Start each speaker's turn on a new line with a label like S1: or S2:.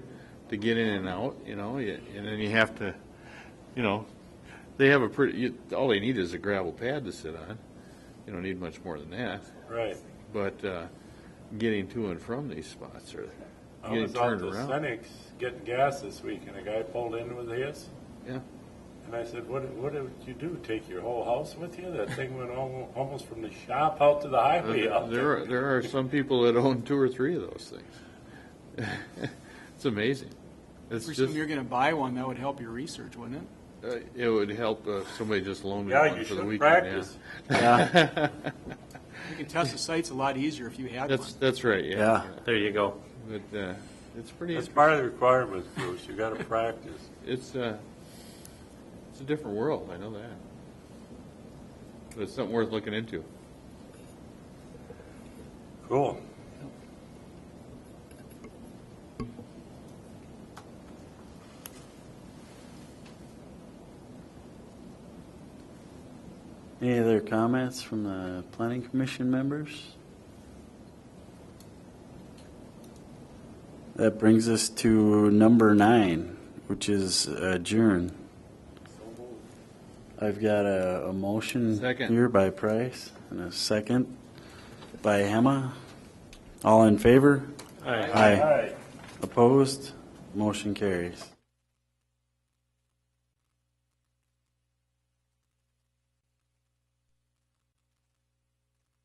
S1: to get in and out, you know, y- and then you have to, you know, they have a pretty, you- all they need is a gravel pad to sit on. You don't need much more than that,
S2: Right.
S1: but uh, getting to and from these spots or
S2: I
S1: getting
S2: was out
S1: turned
S2: to
S1: around.
S2: Senex getting gas this week and a guy pulled in with his.
S1: Yeah.
S2: And I said, what, what did you do? Take your whole house with you? That thing went al- almost from the shop out to the highway out
S1: There
S2: there.
S1: are, there are some people that own two or three of those things. It's amazing. It's
S3: Presume
S1: just,
S3: you're going to buy one, that would help your research, wouldn't it?
S1: uh, it would help uh, if somebody just loaned me
S2: Yeah,
S1: one
S2: you
S1: for the
S2: should
S1: weekend.
S2: practice.
S1: Yeah.
S3: You can test the sites a lot easier if you had one.
S1: That's, that's right, yeah.
S4: Yeah, there you go.
S1: But uh, it's pretty,
S2: That's part of the requirements, Bruce. You gotta practice.
S1: it's, uh, it's a different world, I know that. But it's something worth looking into.
S2: Cool.
S4: Any other comments from the planning commission members? That brings us to number nine, which is adjourn. I've got a, a motion
S1: Second.
S4: here by Price and a second by Hema. All in favor? Aye.
S2: All right.
S4: Opposed? Motion carries.